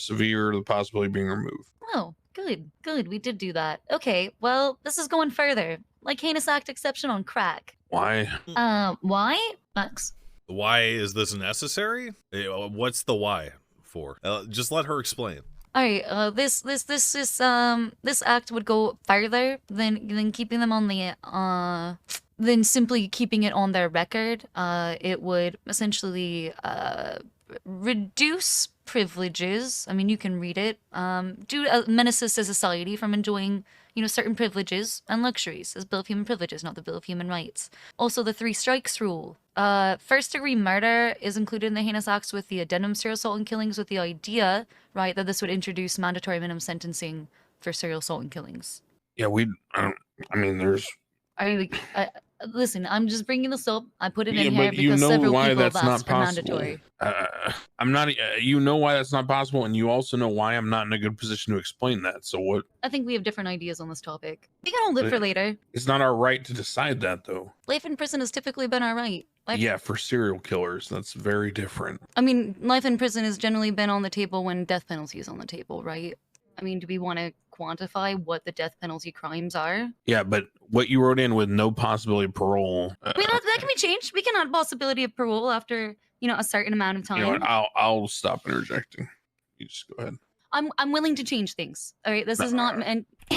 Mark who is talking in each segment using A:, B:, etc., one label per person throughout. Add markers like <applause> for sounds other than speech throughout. A: severe to the possibility of being removed.
B: Oh, good, good. We did do that. Okay, well, this is going further. Like heinous act exception on crack.
A: Why?
B: Uh, why? Max.
C: Why is this necessary? Eh, What's the why for? Uh, just let her explain.
B: All right. Uh, this, this, this, this, um, this act would go further than than keeping them on the uh, than simply keeping it on their record. Uh, it would essentially uh reduce privileges. I mean, you can read it. Um, do uh, menaces to society from enjoying, you know, certain privileges and luxuries as Bill of Human Privileges, not the Bill of Human Rights. Also, the three strikes rule. Uh, first degree murder is included in the heinous acts with the addendum serial assault and killings, with the idea, right, that this would introduce mandatory minimum sentencing for serial assault and killings.
A: Yeah, we. I, don't, I mean, there's.
B: I mean, like, I, listen, I'm just bringing this up. I put it
A: Yeah,
B: in here
A: but
B: because
A: you know
B: several
A: why
B: people have
A: that's not
B: asked for
A: possible.
B: mandatory.
A: Uh, I'm not. Uh, you know why that's not possible, and you also know why I'm not in a good position to explain that. So what?
B: I think we have different ideas on this topic. We can hold it
A: Uh,
B: for later.
A: It's not our right to decide that, though.
B: Life in prison has typically been our right. Life,
A: Yeah, for serial killers, that's very different.
B: I mean, life in prison has generally been on the table when death penalty is on the table, right? I mean, do we want to quantify what the death penalty crimes are?
A: Yeah, but what you wrote in with no possibility of parole. Uh,
B: I mean, that, that can be changed. We can add possibility of parole after you know a certain amount of time.
A: you know what? I'll I'll stop interjecting. You just go ahead.
B: I'm I'm willing to change things. All right, this is not
A: Nah.
B: meant. <clears throat>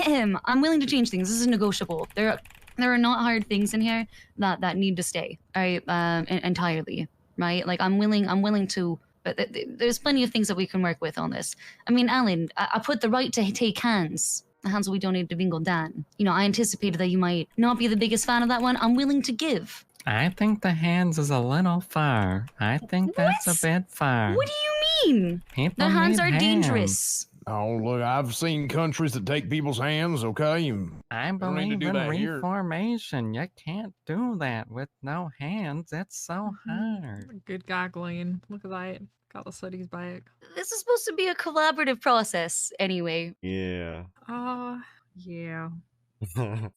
B: I'm willing to change things. This is negotiable. There are there are not hard things in here that that need to stay. All right, um, en- entirely. Right, like I'm willing. I'm willing to. But th- th- there's plenty of things that we can work with on this. I mean, Alan, I, I put the right to take hands. The hands we donated to Bingo Dan. You know, I anticipated that you might not be the biggest fan of that one. I'm willing to give.
D: I think the hands is a little far. I think that's
B: What?
D: a bit far.
B: What do you mean?
D: People
B: The hands
D: need
B: are dangerous.
E: Oh, look, I've seen countries that take people's hands, okay? And
D: I
E: don't need to
D: believe
E: do
D: in
E: that here.
D: reformation. You can't do that with no hands. It's so
F: Mhm.
B: Mm-hmm.
D: hard.
F: Good goggling. Look at that. Got the slutty's back.
B: This is supposed to be a collaborative process, anyway.
G: Yeah. <laughs>
F: Oh, yeah.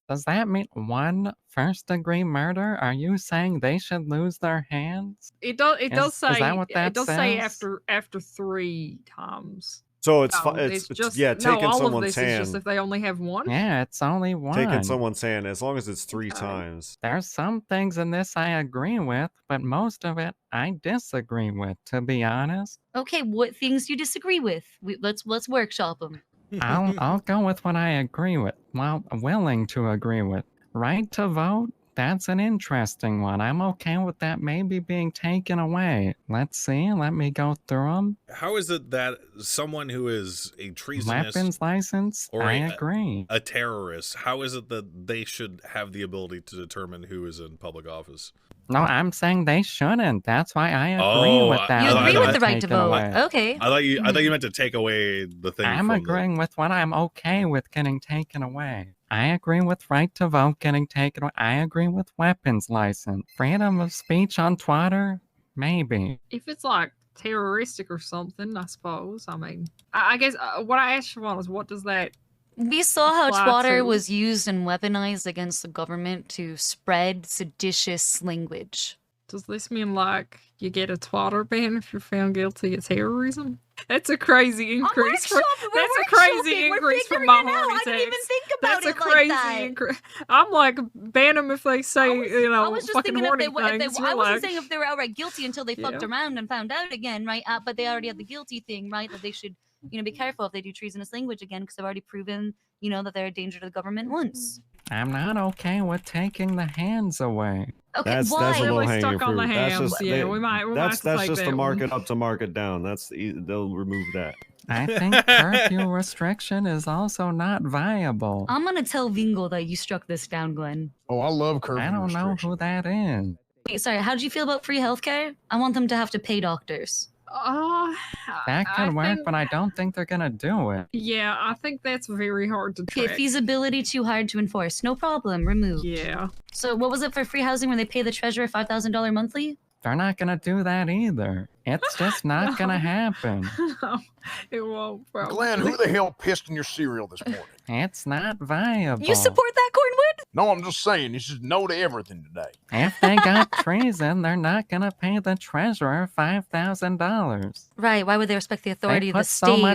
D: Does that mean one first degree murder? Are you saying they should lose their hands?
F: It does. It does
D: Is-
F: say.
D: is that what that
F: it does say
D: says?
F: after after three times.
G: so it's,
F: So
G: fi- it's, it's yeah,
F: no,
G: taking
F: all of
G: someone's
F: this
G: hand.
F: is just if they only have one.
D: Yeah, it's only one.
G: taking someone's hand as long as it's three
F: Okay.
G: times.
D: There's some things in this I agree with, but most of it I disagree with, to be honest.
B: Okay, what things do you disagree with? We, let's let's workshop them.
C: <laughs>
D: I'll I'll go with what I agree with. Well, willing to agree with. Right to vote. That's an interesting one. I'm okay with that maybe being taken away. Let's see. Let me go through them.
C: How is it that someone who is a treasonous,
D: Weapons license.
C: or
D: I
C: a-
D: agree.
C: a terrorist, how is it that they should have the ability to determine who is in public office?
D: No, I'm saying they shouldn't. That's why I agree
C: Oh,
D: with
C: I-
D: that.
B: You
C: no,
D: one
B: agree
C: no,
B: with
C: I-
B: the right to
D: taken
B: vote.
D: away.
B: Okay.
C: I thought you I thought you meant to take away the thing.
D: I'm
C: from the-
D: agreeing with what I'm okay with getting taken away. I agree with right to vote getting taken away. I agree with weapons license. Freedom of speech on Twitter? Maybe.
F: If it's like terroristic or something, I suppose. I mean, I, I guess uh, what I asked Siobhan is what does that?
B: We saw how
F: Apply
B: Twitter
F: to-
B: was used and weaponized against the government to spread seditious language.
F: Does this mean like you get a twatter ban if you're found guilty of terrorism? That's a crazy increase. for- that's a crazy increase from my horny text.
B: think
F: That's a crazy increase. I'm like ban them if they say you know
B: I was just
F: fucking
B: thinking if
F: horny
B: they, were- if they
F: things.
B: I
F: You're
B: wasn't
F: like,
B: saying if they were outright guilty until they fucked
F: Yeah.
B: around and found out again, right? Uh, but they already had the guilty thing, right? That they should, you know, be careful if they do treasonous language again because they've already proven, you know, that they're a danger to the government once.
D: I'm not okay with taking the hands away.
B: Okay,
G: That's
B: why?
G: that's a little
F: Really
G: hanging
F: stuck on
G: fruit.
F: the
G: That's
F: hams.
G: just
F: Yeah,
G: they-
F: we might- we might
G: that's
F: have to
G: that's
F: take
G: just
F: that one.
G: the market up to market down. That's the, e, they'll remove that.
D: I think curfew restriction is also not viable.
B: I'm gonna tell Vingo that you struck this down, Glenn.
E: oh, I love curfew.
D: I don't know who
E: restriction.
D: that is.
B: Wait, sorry, how do you feel about free healthcare? I want them to have to pay doctors.
F: Oh,
D: That could
F: I
D: work,
F: think-
D: but I don't think they're gonna do it.
F: Yeah, I think that's very hard to
B: Okay,
F: track.
B: feasibility too hard to enforce. No problem, remove.
F: yeah, <laughs>
B: So what was it for free housing where they pay the treasurer five thousand dollar monthly?
D: They're not gonna do that either. It's just not
F: No.
D: gonna happen.
F: No, it won't. Probably.
E: Glenn, who the hell pissed in your cereal this morning?
D: It's not viable.
B: You support that Cornwood?
E: No, I'm just saying, this is no to everything today.
D: If they got treason, they're not gonna pay the treasurer five thousand dollars.
B: Right, why would they respect the authority
D: They
B: of the
D: put
B: state?
D: so much